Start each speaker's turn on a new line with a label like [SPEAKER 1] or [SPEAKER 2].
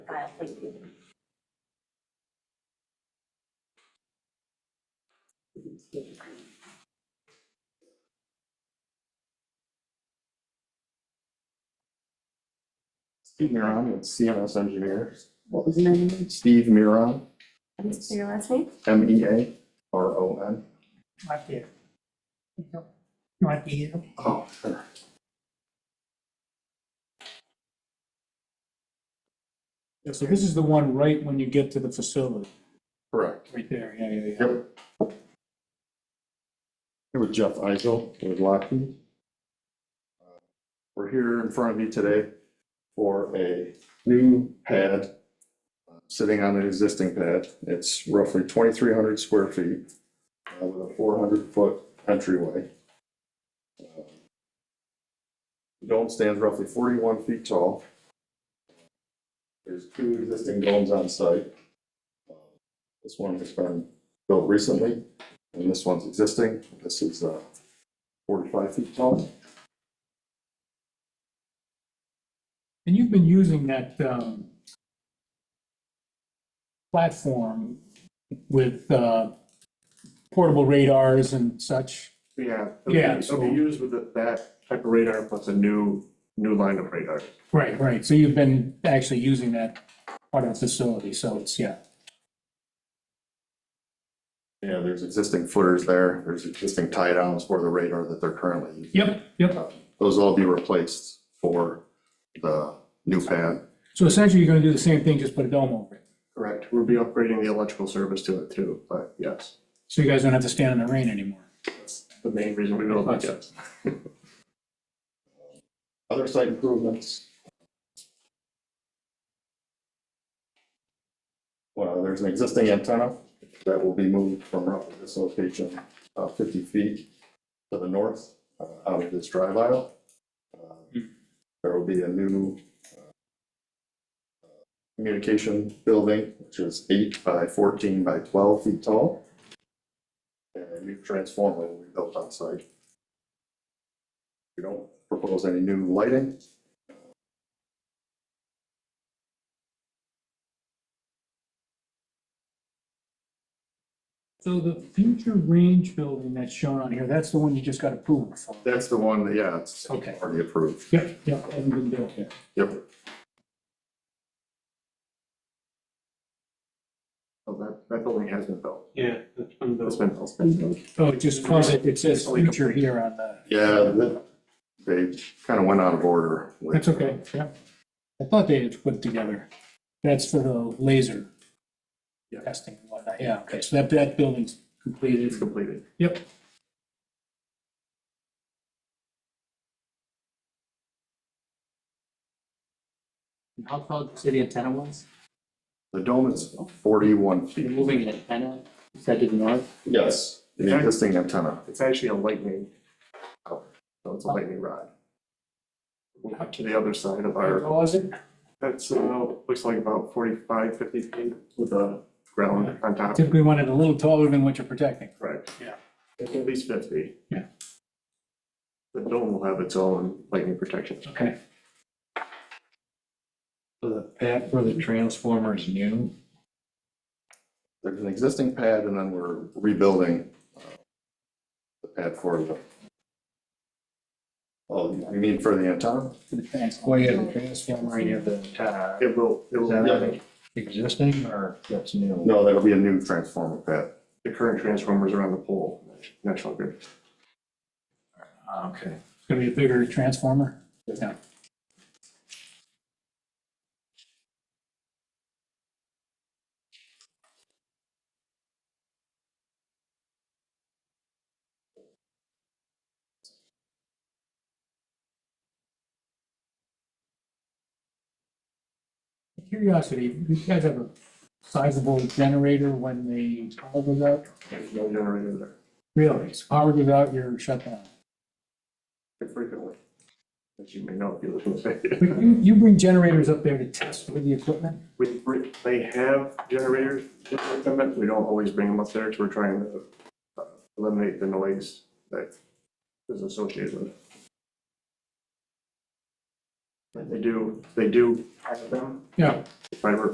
[SPEAKER 1] file, thank you.
[SPEAKER 2] Steve Miron with CMS Engineers.
[SPEAKER 1] What was the name?
[SPEAKER 2] Steve Miron,
[SPEAKER 1] Can you say your last name?
[SPEAKER 2] M E A R O N.
[SPEAKER 3] Right there. Right here.
[SPEAKER 2] Oh, sure.
[SPEAKER 4] Yeah, so this is the one right when you get to the facility,
[SPEAKER 2] Correct.
[SPEAKER 4] right there, yeah, yeah, yeah.
[SPEAKER 2] Yep. Here with Jeff Isel with Lockheed. Uh, We're here in front of you today for a new pad, uh, sitting on an existing pad. It's roughly twenty-three hundred square feet uh, with a four hundred foot entryway. Uh, The Dome stands roughly forty-one feet tall. There's two existing domes on site. Uh, This one has been built recently, and this one's existing. This is uh, 45 feet tall.
[SPEAKER 4] And you've been using that, um, platform with, uh, portable radars and such.
[SPEAKER 5] Yeah.
[SPEAKER 4] Yeah,
[SPEAKER 5] It'll
[SPEAKER 4] so-
[SPEAKER 5] be used with that- that type of radar plus a new, new line of radar.
[SPEAKER 4] Right, right, so you've been actually using that part of the facility, so it's, yeah.
[SPEAKER 2] Yeah, there's existing footers there. There's existing tie downs for the radar that they're currently using.
[SPEAKER 4] Yep, yep.
[SPEAKER 2] Those will all be replaced for the new pad.
[SPEAKER 4] So essentially, you're gonna do the same thing, just put a dome over it,
[SPEAKER 5] Correct. We'll be upgrading the electrical service to it too, but yes,
[SPEAKER 4] so you guys don't have to stand in the rain anymore.
[SPEAKER 5] that's the main reason we built it, yes.
[SPEAKER 2] Other site improvements. Well, there's an existing antenna that will be moved from roughly this location, uh, 50 feet to the north, uh, out of this drive aisle. Uh, There will be a new uh, communication building, which is eight by 14 by 12 feet tall. And a new transformer will be built on site. We don't propose any new lighting.
[SPEAKER 4] So the future range building that's shown on here, that's the one you just got approval for?
[SPEAKER 2] That's the one, that yeah, it's
[SPEAKER 4] Okay.
[SPEAKER 2] already approved.
[SPEAKER 4] Yep, yep, hasn't been built yet.
[SPEAKER 2] Yep.
[SPEAKER 5] So Oh, that, that building has been built.
[SPEAKER 3] Yeah, that's one of those.
[SPEAKER 5] It's been built. It's been built.
[SPEAKER 4] Oh, it just calls it, it says future here on the,
[SPEAKER 2] Yeah, that- they kind of went out of order. with-
[SPEAKER 4] that's okay, yeah. I thought they had put together, that's for the laser
[SPEAKER 5] Yeah.
[SPEAKER 4] testing and whatnot, yeah, okay, so that, that building's completed.
[SPEAKER 5] It's completed.
[SPEAKER 4] Yep.
[SPEAKER 6] How tall did you say the antenna was?
[SPEAKER 2] The dome is 41
[SPEAKER 6] You're
[SPEAKER 2] feet.
[SPEAKER 6] moving an antenna, you said to the north?
[SPEAKER 2] Yes. The existing antenna.
[SPEAKER 5] It's actually a lightning. cover, So it's a lightning rod. We'll cut to the other side of
[SPEAKER 4] How
[SPEAKER 5] our,
[SPEAKER 4] tall is it?
[SPEAKER 5] that's, uh, looks like about 45, 50 feet with a ground on top.
[SPEAKER 4] Typically want it a little taller than what you're protecting.
[SPEAKER 5] Correct.
[SPEAKER 4] Yeah.
[SPEAKER 5] At least fifty.
[SPEAKER 4] Yeah.
[SPEAKER 5] The dome will have its own lightning protection.
[SPEAKER 4] Okay.
[SPEAKER 7] The pad for the transformers new,
[SPEAKER 2] There's an existing pad and then we're rebuilding uh, the pad for the. Oh, you mean for the antenna?
[SPEAKER 4] For the trans-
[SPEAKER 7] well, you have the transformer, you have the antenna.
[SPEAKER 5] It will, it
[SPEAKER 7] Is
[SPEAKER 5] will,
[SPEAKER 2] Yeah.
[SPEAKER 7] that existing or that's new?
[SPEAKER 2] No, that'll be a new transformer pad.
[SPEAKER 5] the current transformers are on the pole, National Grid.
[SPEAKER 7] Ah, Okay.
[SPEAKER 4] It's gonna be a bigger transformer? Yeah. Curiosity, you guys have a sizable generator when the power goes out?
[SPEAKER 5] There's no generator there
[SPEAKER 4] Really? So Power goes out, you're shut down.
[SPEAKER 5] frequently, as you may know if you live in the city.
[SPEAKER 4] You, you bring generators up there to test with the equipment?
[SPEAKER 5] We, we- they have generators, with them, but we don't always bring them up there, because we're trying to uh, eliminate the noise that is associated with it. But they do, they do have them,
[SPEAKER 4] Yeah.
[SPEAKER 5] fiber